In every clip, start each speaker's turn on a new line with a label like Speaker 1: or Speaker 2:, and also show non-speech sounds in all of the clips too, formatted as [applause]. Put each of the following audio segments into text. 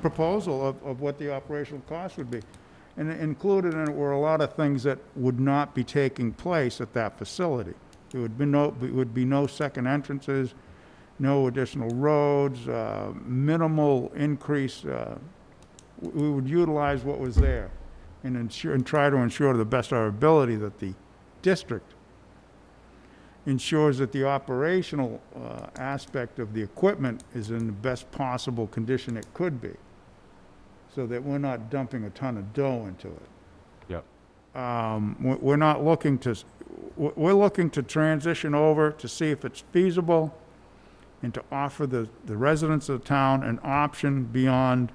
Speaker 1: proposal of, of what the operational cost would be. And included in it were a lot of things that would not be taking place at that facility. There would be no, there would be no second entrances, no additional roads, uh, minimal increase, uh, w- we would utilize what was there and ensure, and try to ensure to the best of our ability that the district ensures that the operational uh, aspect of the equipment is in the best possible condition it could be, so that we're not dumping a ton of dough into it.
Speaker 2: Yep.
Speaker 1: Um, we- We're not looking to, s- we're we're looking to transition over to see if it's feasible and to offer the the residents of the town an option beyond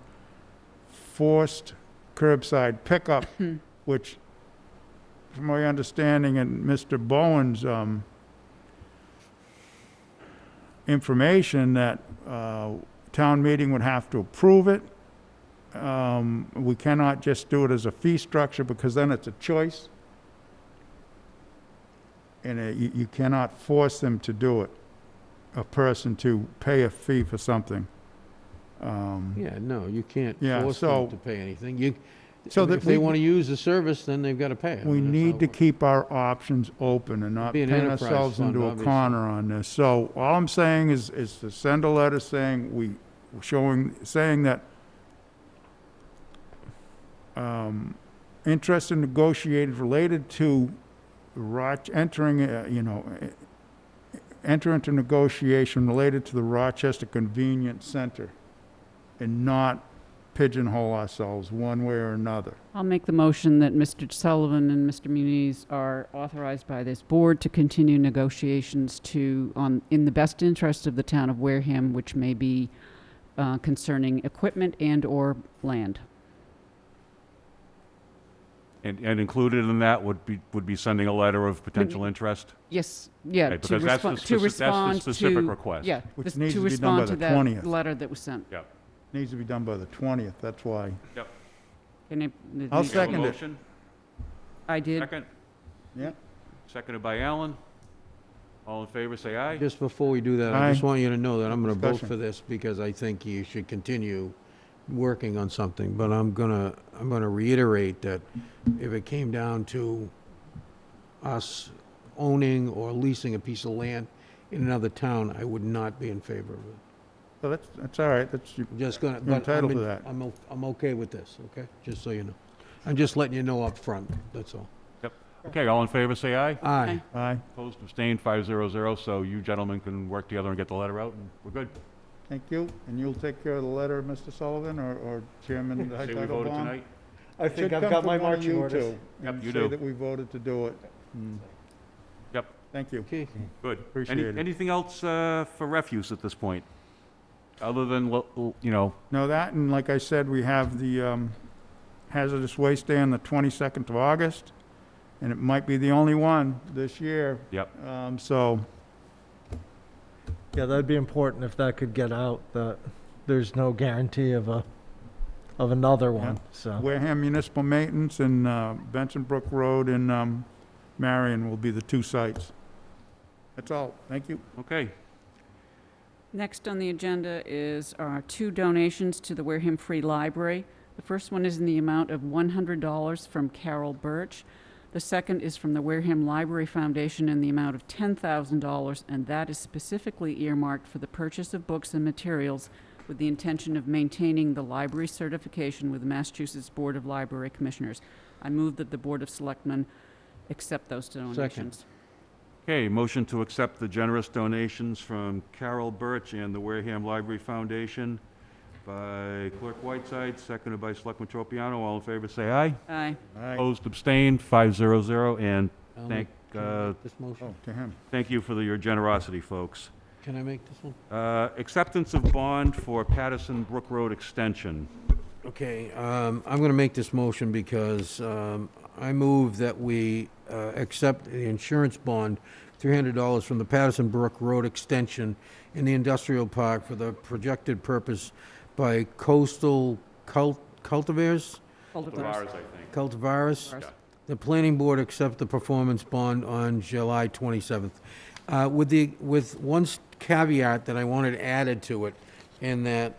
Speaker 1: forced curbside pickup, which, from my understanding and Mr. Bowen's um, information, that uh, town meeting would have to approve it. Um, We cannot just do it as a fee structure, because then it's a choice. And uh, you you cannot force them to do it, a person to pay a fee for something. Um,
Speaker 3: Yeah, no, you can't
Speaker 1: Yeah,
Speaker 3: force
Speaker 1: so-
Speaker 3: them to pay anything. You,
Speaker 1: So
Speaker 3: I mean,
Speaker 1: that
Speaker 3: if they
Speaker 1: we-
Speaker 3: want to use the service, then they've got to pay. it. I
Speaker 1: We
Speaker 3: mean, that's how
Speaker 1: need
Speaker 3: it
Speaker 1: to
Speaker 3: works.
Speaker 1: keep our options open and not
Speaker 3: Be an
Speaker 1: pin
Speaker 3: enterprise
Speaker 1: ourselves
Speaker 3: fund,
Speaker 1: into a
Speaker 3: obviously.
Speaker 1: corner on this. So all I'm saying is, is to send a letter saying we, showing, saying that um, interest in negotiated related to Roch, entering, uh, you know, eh, enter into negotiation related to the Rochester Convenience Center and not pigeonhole ourselves one way or another.
Speaker 4: I'll make the motion that Mr. Sullivan and Mr. Muniz are authorized by this board to continue negotiations to, on, in the best interest of the town of Wareham, which may be uh, concerning equipment and/or land.
Speaker 2: And, and included in that would be, would be sending a letter of potential interest?
Speaker 4: Yes, yeah,
Speaker 2: Okay,
Speaker 4: to
Speaker 2: because that's the
Speaker 4: respond, to
Speaker 2: speci- that's the
Speaker 4: respond to...
Speaker 2: specific request.
Speaker 4: Yeah,
Speaker 1: Which
Speaker 4: this-
Speaker 1: needs
Speaker 4: to
Speaker 1: to be done by
Speaker 4: respond to
Speaker 1: the 20th.
Speaker 4: that letter that was sent.
Speaker 2: Yep.
Speaker 1: Needs to be done by the 20th, that's why.
Speaker 4: Can I-
Speaker 1: I'll
Speaker 2: We have a
Speaker 1: second it.
Speaker 2: motion,
Speaker 4: I did.
Speaker 2: Second,
Speaker 1: Yeah.
Speaker 2: seconded by Alan. All in favor, say aye.
Speaker 3: Just before we do that, I
Speaker 1: Aye.
Speaker 3: just want you to know that I'm going to vote
Speaker 1: Discussion.
Speaker 3: for this because I think you should continue working on something. But I'm going to, I'm going to reiterate that if it came down to us owning or leasing a piece of land in another town, I would not be in favor of it.
Speaker 1: So that's, that's all right, that's, you-
Speaker 3: I'm just going to,
Speaker 1: You're
Speaker 3: but I'm,
Speaker 1: entitled to
Speaker 3: in-
Speaker 1: that.
Speaker 3: I'm, o- I'm okay with this, okay? Just so you know. I'm just letting you know up front. that's all.
Speaker 2: Okay, all in favor, say aye.
Speaker 3: Aye.
Speaker 1: aye,
Speaker 2: Opposed, abstained, five zero zero, so you gentlemen can work together and get the letter out, and we're good.
Speaker 1: thank you. And you'll take care of the letter, Mr. Sullivan, or, or Chairman
Speaker 2: [laughs] Say we voted
Speaker 1: Titlebaum?
Speaker 2: tonight?
Speaker 5: I think I've got my marching orders.
Speaker 2: Yep,
Speaker 1: And
Speaker 2: you
Speaker 1: say
Speaker 2: do.
Speaker 1: that we voted to do it. Mm,
Speaker 2: Yep,
Speaker 1: Thank you.
Speaker 3: Okay.
Speaker 2: good.
Speaker 1: Appreciate it.
Speaker 2: Any, anything else, uh, for refuse at this point? Other than, lo- lo- you know,
Speaker 1: No, that, and like I said, we have the um, hazardous waste day on the 22nd of August, and it might be the only one this year.
Speaker 2: Yep.
Speaker 1: Um, So,
Speaker 5: Yeah, that'd be important if that could get out, that there's no guarantee of a, of another one, so.
Speaker 1: Wareham Municipal Maintenance and uh, Benson Brook Road and um, Marion will be the two sites. That's all, thank you.
Speaker 2: okay,
Speaker 4: Next on the agenda is our two donations to the Wareham Free Library. The first one is in the amount of $100 from Carol Birch. The second is from the Wareham Library Foundation in the amount of $10,000, and that is specifically earmarked for the purchase of books and materials with the intention of maintaining the library certification with the Massachusetts Board of Library Commissioners. I move that the Board of Selectmen accept those donations.
Speaker 2: Okay, motion to accept the generous donations from Carol Birch and the Wareham Library Foundation by Clerk Whiteside, seconded by Selectman Tropiano. All in favor, say aye.
Speaker 4: Aye.
Speaker 1: All right.
Speaker 2: Opposed, abstained, five zero zero, and
Speaker 3: I'll
Speaker 2: thank,
Speaker 3: make- can I
Speaker 2: uh,
Speaker 3: make um, This motion,
Speaker 1: Oh, to him.
Speaker 2: thank you for the- your generosity, folks.
Speaker 3: can I make this one?
Speaker 2: Uh, acceptance of bond for Patterson Brook Road Extension.
Speaker 3: Okay, um, I'm going to make this motion because um, I move that we uh, accept the insurance bond, $300 from the Patterson Brook Road Extension in the industrial park for the projected purpose by coastal cult- cultivars,
Speaker 4: Cultivars.
Speaker 2: I think.
Speaker 3: cultivars.
Speaker 4: Cultivars.
Speaker 3: The planning board accept the performance bond on July 27th. Uh, With the, with one s- caveat that I wanted added to it, in that